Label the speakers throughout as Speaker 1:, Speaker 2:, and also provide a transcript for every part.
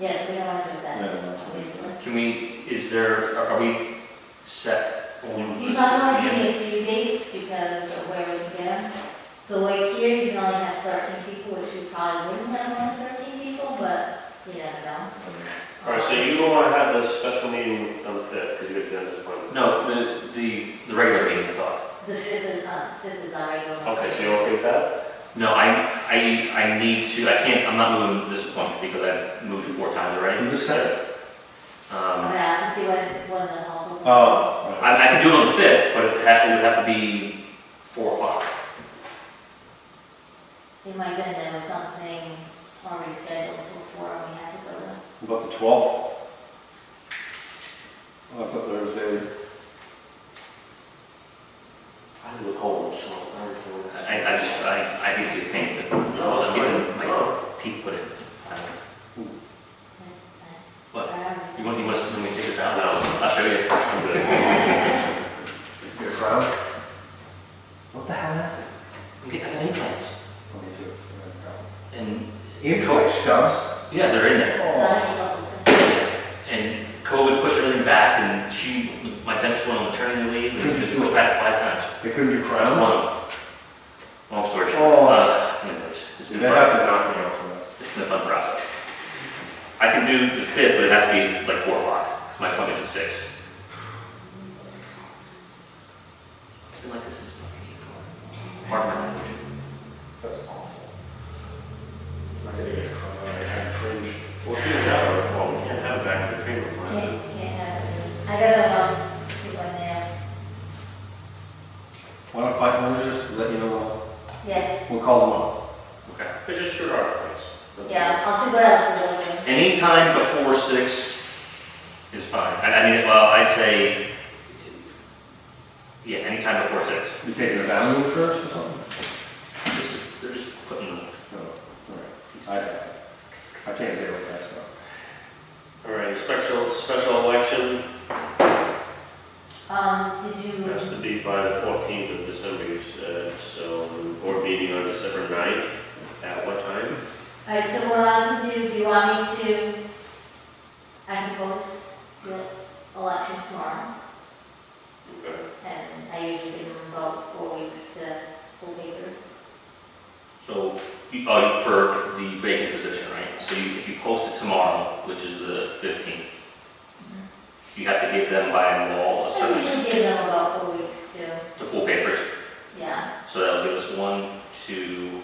Speaker 1: Yes, we don't want to do that,
Speaker 2: No,
Speaker 1: obviously.
Speaker 3: Can we, is there, are are we set on the
Speaker 1: You
Speaker 3: six
Speaker 1: probably want to give
Speaker 3: P
Speaker 1: me
Speaker 3: M?
Speaker 1: a few dates because of where we can. So like here, you can only have thirteen people, which we probably wouldn't have only thirteen people, but you never know.
Speaker 4: All right, so you don't want to have this special meeting on the fifth, because you have done this one.
Speaker 3: No, the, the, the regular meeting, I thought.
Speaker 1: The fifth is, uh, fifth is already going.
Speaker 4: Okay, so you're okay with that?
Speaker 3: No, I, I, I need to, I can't, I'm not moving this appointment because I've moved it four times already.
Speaker 2: Who just said
Speaker 3: Um,
Speaker 1: Okay, I have to see when, when the halls will.
Speaker 2: Oh.
Speaker 3: I, I can do it on the fifth, but it ha- it would have to be four o'clock.
Speaker 1: It might have been there was something already scheduled for before we had to go to.
Speaker 2: What About the twelfth? Oh, I thought Thursday.
Speaker 4: I'm with home, so I don't know.
Speaker 3: I, I just, I, I hate to be a pain, but
Speaker 4: No, it's
Speaker 3: I'm getting
Speaker 4: fine.
Speaker 3: my
Speaker 4: No.
Speaker 3: teeth put in. Uh, I don't know. What?
Speaker 1: Alright.
Speaker 3: You want, you want to, let me take this out? No. I'll show you. I'm good.
Speaker 2: Your crowd? What the hell happened? Oh,
Speaker 3: I'm getting, I got implants.
Speaker 2: Me too.
Speaker 3: And.
Speaker 2: Incorrect stubs?
Speaker 3: Yeah, they're in there.
Speaker 2: Oh.
Speaker 1: But I think that was-
Speaker 3: And COVID pushed everything back, and she, my dentist went on maternity leave, and it's just pushed back five times.
Speaker 2: They couldn't do crowns?
Speaker 3: Just one. Long story
Speaker 2: Oh.
Speaker 3: short, uh, anyways, it's been
Speaker 2: They have
Speaker 3: fun,
Speaker 2: to knock me out for that.
Speaker 3: it's been a fun process. I can do the fifth, but it has to be like four o'clock, 'cause my appointment's at six. It's been like this since fucking April. Pardon my language.
Speaker 2: That's awful. I'm gonna get a crown, I had cringe.
Speaker 4: Well, if you have a problem, you can't have it back in the treatment plan.
Speaker 1: Can't, can't have it. I gotta, um, see when they are.
Speaker 2: Why don't fight managers, let you know,
Speaker 1: Yeah,
Speaker 2: we'll call them up.
Speaker 3: Okay.
Speaker 4: But just shoot our place. That's
Speaker 1: yeah, I'll see what else is open.
Speaker 3: Any time before six is fine. I, I mean, well, I'd say, yeah, any time before six.
Speaker 2: You taking a family first or something?
Speaker 3: This is, they're just putting, the-
Speaker 2: No, alright. I, I can't deal with that stuff.
Speaker 4: all. All right, special, special election
Speaker 1: Um, did you?
Speaker 4: has to be by the fourteenth of December, you said, so board meeting on December ninth, at what time?
Speaker 1: All right, so what I can do, do you want me to, I can post the election tomorrow,
Speaker 4: Okay.
Speaker 1: and I usually give them about four weeks to full papers.
Speaker 3: so, you- oh, you- for the vacant position, right? So you, if you post it tomorrow, which is the fifteenth, you have to give them by law a
Speaker 1: I
Speaker 3: certain,
Speaker 1: usually give them about four weeks to,
Speaker 3: to pull papers.
Speaker 1: yeah,
Speaker 3: So that'll give us one, two,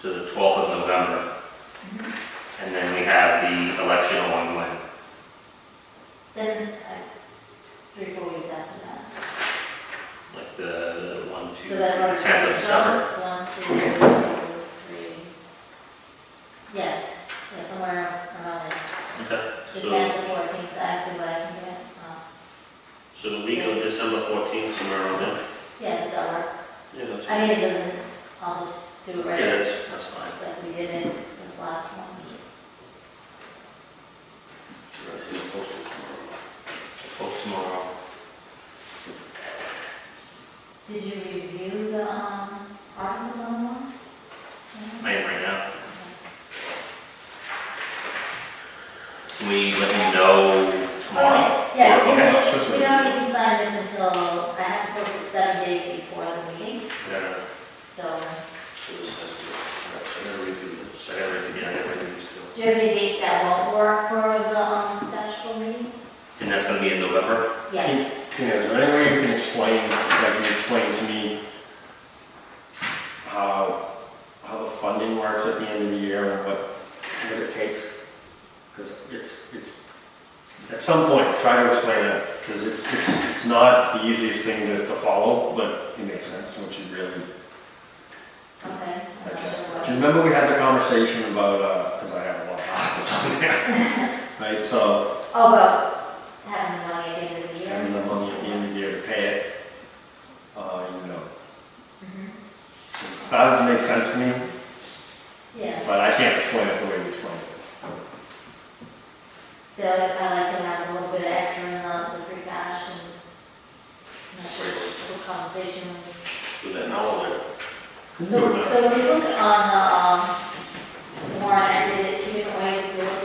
Speaker 3: to the twelfth of November. And then we have the election on when?
Speaker 1: then, uh, three, four weeks after that.
Speaker 3: like the one, two,
Speaker 1: So that runs
Speaker 3: tenth of December.
Speaker 1: One, two, three, yeah, yeah, somewhere around there,
Speaker 3: Okay,
Speaker 1: the
Speaker 4: So,
Speaker 1: tenth, the fourteenth, I see what I can get, uh,
Speaker 4: so the week of December fourteenth, somewhere around there?
Speaker 1: yeah, it's over.
Speaker 4: Yeah, that's.
Speaker 1: I mean, it doesn't, I'll just do it
Speaker 3: yeah,
Speaker 1: right.
Speaker 3: that's, that's fine.
Speaker 1: Like we did in this last one.
Speaker 4: That's in the postal tomorrow.
Speaker 3: Post tomorrow.
Speaker 1: Did you review the, um, articles on one?
Speaker 3: I am right now. Can we let you know tomorrow?
Speaker 1: Okay, Oh, yeah, we
Speaker 3: Okay.
Speaker 1: don't need- we don't need to sign this until, I have to post it seven days before the meeting,
Speaker 3: Yeah.
Speaker 1: so,
Speaker 4: So this has to, I gotta redo this.
Speaker 3: So I gotta redo- yeah, I gotta redo this too.
Speaker 1: do you have any dates that won't work for the, um, special meeting?
Speaker 3: And that's gonna be in November?
Speaker 1: Yes,
Speaker 2: Tina, is there any way you can explain, like you explain to me how, how the funding works at the end of the year and what, what it takes? Because it's, it's, at some point, try to explain it, because it's, it's, it's not the easiest thing to, to follow, but it makes sense, which is really
Speaker 1: okay. I don't know
Speaker 2: digestible.
Speaker 1: what-
Speaker 2: Do you remember we had the conversation about, uh, because I have a lot of articles on there, right, so
Speaker 1: Oh, well, having the money at the end of the year.
Speaker 2: having the money at the end of the year to pay it, uh, you know,
Speaker 1: Mhm.
Speaker 2: It started to make sense to me,
Speaker 1: Yeah.
Speaker 2: but I can't explain it the way we explained it.
Speaker 1: So I like to have a little bit of extra in the, the free cash and and that's where this little conversation.
Speaker 4: Do that now or later?
Speaker 1: So, so if you look on the, um,